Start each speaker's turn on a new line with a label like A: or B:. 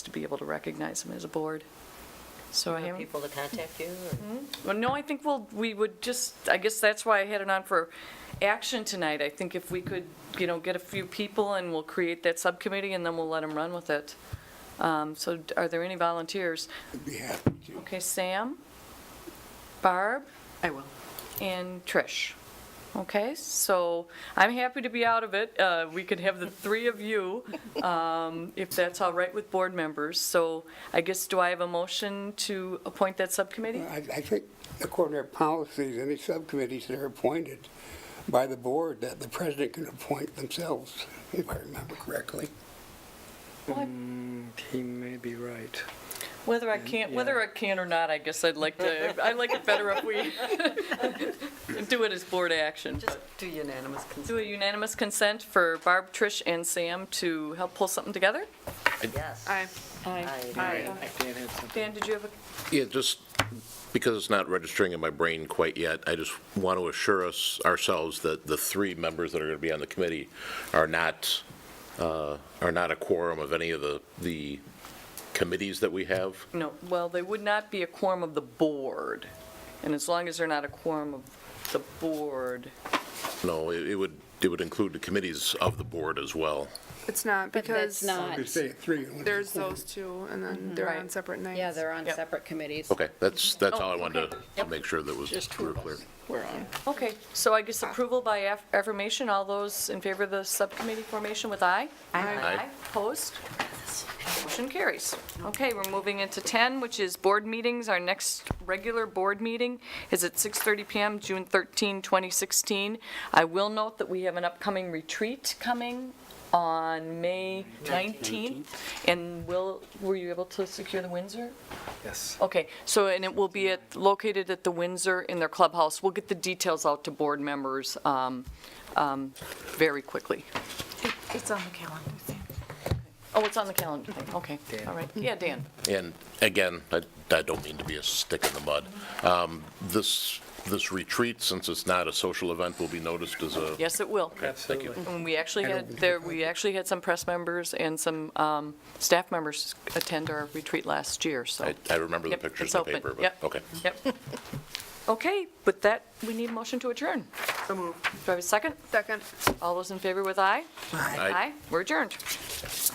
A: to be able to recognize them as a board. So I
B: For
A: haven't,
B: people to contact you, or
A: well, no, I think we'll, we would just, I guess that's why I had it on for action tonight. I think if we could, you know, get a few people and we'll create that subcommittee and then we'll let them run with it. Um, So are there any volunteers?
C: I'd be happy to.
A: Okay, Sam, Barb,
D: I will.
A: and Trish. Okay, so I'm happy to be out of it. Uh, We could have the three of you, um, if that's all right with board members. So I guess, do I have a motion to appoint that subcommittee?
C: I, I think according to our policies, any subcommittees that are appointed by the board, that the president can appoint themselves, if I remember correctly.
E: He may be right.
A: Whether I can, whether I can or not, I guess I'd like to, I like it better if we do it as board action.
D: Just do unanimous consent.
A: Do a unanimous consent for Barb, Trish, and Sam to help pull something together?
B: yes.
D: Aye.
B: Aye.
E: Dan had something.
A: Dan, did you have a
F: Yeah, just because it's not registering in my brain quite yet, I just want to assure us, ourselves, that the three members that are going to be on the committee are not, uh, are not a quorum of any of the, the committees that we have.
A: No, well, they would not be a quorum of the board, and as long as they're not a quorum of the board,
F: No, it it would, it would include the committees of the board as well.
G: It's not
H: But that's
G: because
H: not, Mm-hmm.
C: You say three. and one is
G: there's
C: appointed.
G: those two and then they're on
A: Right.
G: separate nights.
H: yeah, they're on
A: Yep.
H: separate committees.
F: Okay, that's, that's all I wanted to make sure that was
D: Oh, Just two
F: real
D: of
F: clear.
D: us. We're on.
A: okay, so I guess approval by aff- affirmation, all those in favor of the subcommittee formation with aye?
F: Aye.
A: Opposed? Motion carries. Okay, we're moving into 10, which is board meetings. Our next regular board meeting is at 6:30 PM, June 13, 2016. I will note that we have an upcoming retreat coming on May 19th. And will, were you able to secure the Windsor?
E: Yes.
F: Oh,
A: Okay, so, and it will be at, located at the Windsor in their clubhouse. We'll get the details out to board members um, um, very quickly.
D: It's on the calendar.
A: Oh, it's on the calendar thing, okay, all right. Yeah, Dan.
F: And again, I, I don't mean to be a stick in the mud. Um, This, this retreat, since it's not a social event, will be noticed as a.
A: Yes, it will.
F: Thank you.
E: Absolutely.
A: And we actually had, there, we actually had some press members and some um, staff members attend our retreat last year, so.
F: I, I remember the
A: Yep, it's
F: pictures in the
A: open.
F: paper, but,
A: Yep.
F: okay.
A: Yep. Okay, with that, we need a motion to adjourn.
D: So moved.
A: Do I have a second?
G: Second.
A: All those in favor with aye?
F: Aye.
A: We're adjourned.